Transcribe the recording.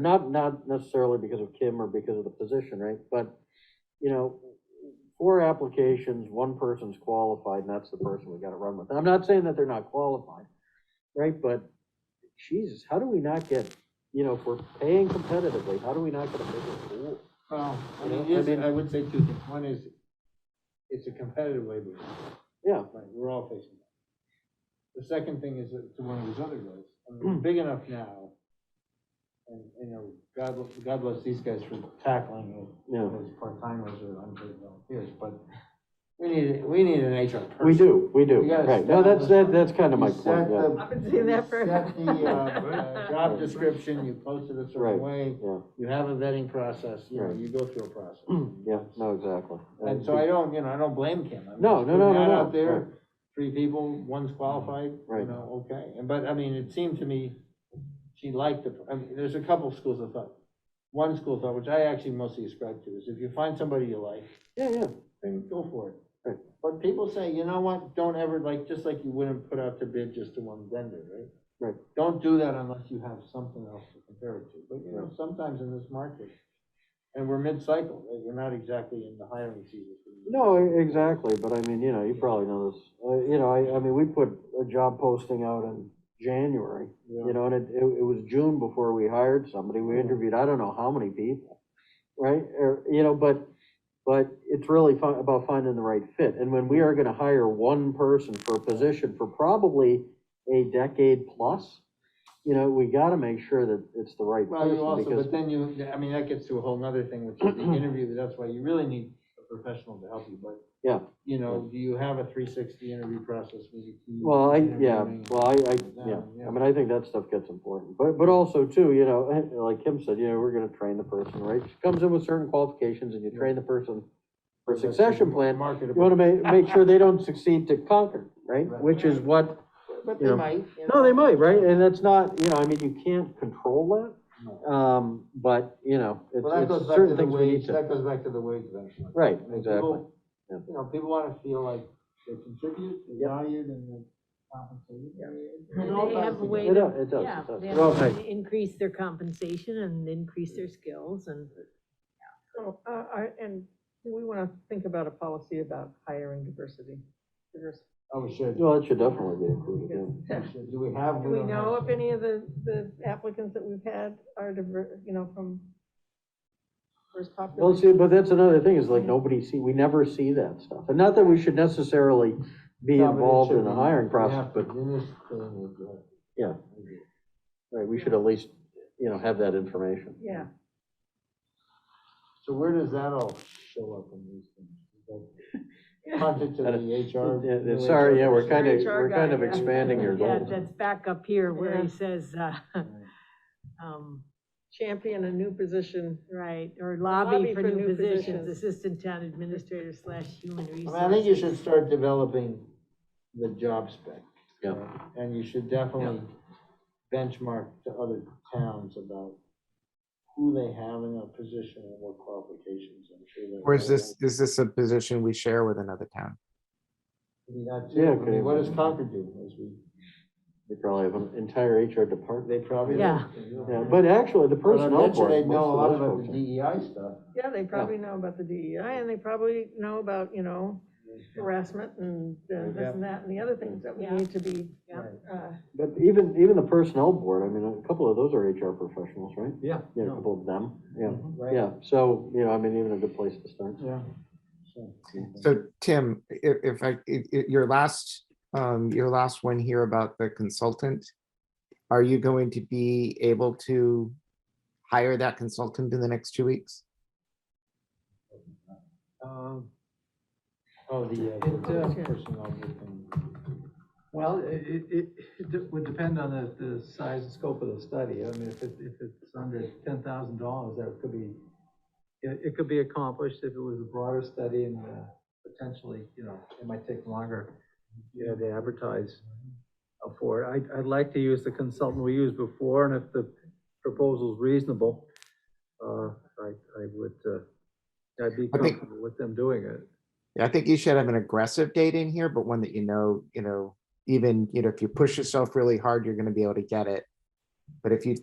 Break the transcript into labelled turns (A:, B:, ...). A: not, not necessarily because of Kim or because of the position, right? But, you know, four applications, one person's qualified, and that's the person we gotta run with. And I'm not saying that they're not qualified, right? But Jesus, how do we not get, you know, if we're paying competitively, how do we not get a bigger pool?
B: Well, I
A: You know,
B: mean,
A: I
B: yes,
A: mean-
B: I would say two things. One is, it's a competitive labor market,
A: Yeah,
B: right? We're all facing that. The second thing is that to one of his other goals, I mean,
A: Mm.
B: we're big enough now. And, you know, God, bl- God bless these guys for tackling it,
A: yeah,
B: those part-timers or unpaid volunteers, but we need, we need an HR person.
A: we do, we do,
B: You gotta
A: right. No, that's, that, that's kind of my
B: You set
A: point, yeah,
B: the-
C: I've been seeing that for-
B: you Set the, uh, uh, job
A: Right.
B: description, you post it a
A: Right.
B: certain way,
A: yeah,
B: you have a vetting process, you know,
A: Right. Mm.
B: you go through a process.
A: yeah, no, exactly.
B: And so I don't, you know, I don't blame Kim. I mean,
A: No,
B: she
A: no, no, no,
B: put an ad
A: no,
B: Out
A: right.
B: there, three people, one's qualified,
A: Right.
B: you know, okay, and, but, I mean, it seemed to me, she liked the, I mean, there's a couple schools of thought. One school of thought, which I actually mostly ascribe to, is if you find somebody you like,
A: Yeah, yeah,
B: then go for
A: Right.
B: it. But people say, you know what, don't ever, like, just like you wouldn't put out to bid just to one vendor, right?
A: Right.
B: Don't do that unless you have something else to compare it to, but you know,
A: Right.
B: sometimes in this market, and we're mid-cycle, right, we're not exactly in the hiring season. for the-
A: No, e- exactly, but I mean, you know, you probably know this, uh, you know, I, I mean, we put a job posting out in January, you
B: Yeah.
A: know, and it, it, it was June before we hired somebody, we
B: Yeah.
A: interviewed, I don't know how many people, right, or, you know, but, but it's really fi- about finding the right fit, and when we are gonna hire one person for a position for probably a decade plus, you know, we gotta make sure that it's the right
B: Well, you
A: person,
B: also,
A: because,
B: but then you, I mean, that gets to a whole nother thing, which is the interview, that's why you really need a professional to help you, but.
A: Yeah.
B: You know, do you have a three sixty interview process? where you can-
A: well, I, yeah,
B: interviewing?
A: well, I, I, yeah.
B: Yeah.
A: I mean, I think that stuff gets important, but, but also too, you know, eh, like Kim said, you know, we're gonna train the person, right? She comes in with certain qualifications and you train the person for succession plan. You wanna
B: Marketable.
A: ma- make sure they don't succeed to conquer, right?
B: Right.
A: Which is what,
C: But
A: Yeah.
C: they might. you
A: no, they
C: know.
A: might, right? And that's not, you know, I mean, you can't control that, um, but, you know, it's,
B: Well, that
A: it's
B: goes back to
A: certain
B: the
A: things we
B: wage,
A: need to.
B: that goes back to the wage eventually.
A: Right,
B: I mean,
A: exactly.
B: people-
A: Yeah.
B: You know, people wanna feel like they contribute, they're valued, and they're compensated.
C: Yeah.
B: I mean, it all
C: They
B: ties
C: have a
B: together.
C: way
A: It does, it does,
C: Yeah,
A: it
C: they
A: does.
B: Well,
C: have to
B: thank-
C: increase their compensation and increase their skills and.
D: So, uh, I, and do we wanna think about a policy about hiring diversity? Diverse-
B: Oh, we should.
A: Well, it should definitely be included,
B: We should. Do we have?
D: Do we
B: don't have.
D: know if any of the, the applicants that we've had are diver, you know, from first
A: yeah. Well,
D: population?
A: see, but that's another thing, is
B: Hmm.
A: like, nobody see, we never see that stuff. And not that we should necessarily be
B: No, but it
A: involved
B: should
A: in the
B: be.
A: hiring
B: We
A: process,
B: have to
A: but
B: do this thing with, uh,
A: Yeah. Right, we should at least, you know, have that information.
D: Yeah,
B: So where does that all show up in these things? Is that Contact to
A: Yeah.
B: the HR.
A: Yeah, yeah,
B: new
A: Sorry,
B: HR
A: yeah, we're
B: person?
A: kind of,
D: Your HR
A: we're kind of
D: guy, yeah.
A: expanding your
C: Yeah,
A: goals.
C: that's back up here where
D: Yeah.
C: he says, uh, um,
D: champion a new position.
C: right, or lobby for new positions,
D: positions.
C: assistant town administrator slash human
B: I mean,
C: resources.
B: I think you should start developing the job spec.
A: Yeah.
B: right? And you should definitely benchmark to other towns about who they have in a position and what qualifications. I'm sure they.
E: Or is this, is this a position we share with another town?
B: I mean, that
A: Yeah,
B: too. I mean,
A: okay.
B: What does Concord do? As we,
A: They probably have an entire HR department.
B: they probably.
C: Yeah.
A: Yeah, but actually, the
B: But I
A: personnel
B: bet you
A: board,
B: they know a lot
A: most of
B: about
A: those
B: the
A: folks.
B: DEI stuff.
D: Yeah, they probably know about the DEI, and they probably know about, you know, harassment and uh, this and that, and the other things that we
C: Yeah.
D: need to be,
C: Yeah.
B: Right.
D: uh,
A: But even, even the personnel board, I mean, a couple of those are HR professionals, right?
B: Yeah. Mm-hmm.
A: Yeah, a couple of them, yeah,
B: Right.
A: yeah. So, you know, I mean, even a good place to start.
B: Yeah.
E: So Tim, if, if I, if, if your last, um, your last one here about the consultant, are you going to be able to hire that consultant in the next two weeks?
A: uh,
B: Um, Oh, the, uh,
D: uh,
B: the personnel thing.
F: Well, it, it- it, it de- would depend on the, the size and scope of the study. I mean, if it, if it's under ten thousand dollars, that could be, it, it could be accomplished if it was a broader study and, uh, potentially, you know, it might take longer, you know, to advertise for it. I, I'd like to use the consultant we used before, and if the proposal's reasonable, uh, I, I would, uh, I'd be
E: I think-
F: comfortable with them doing it.
E: Yeah, I think you should have an aggressive date in here, but one that you know, you know, even, you know, if you push yourself really hard, you're gonna be able to get it. But if you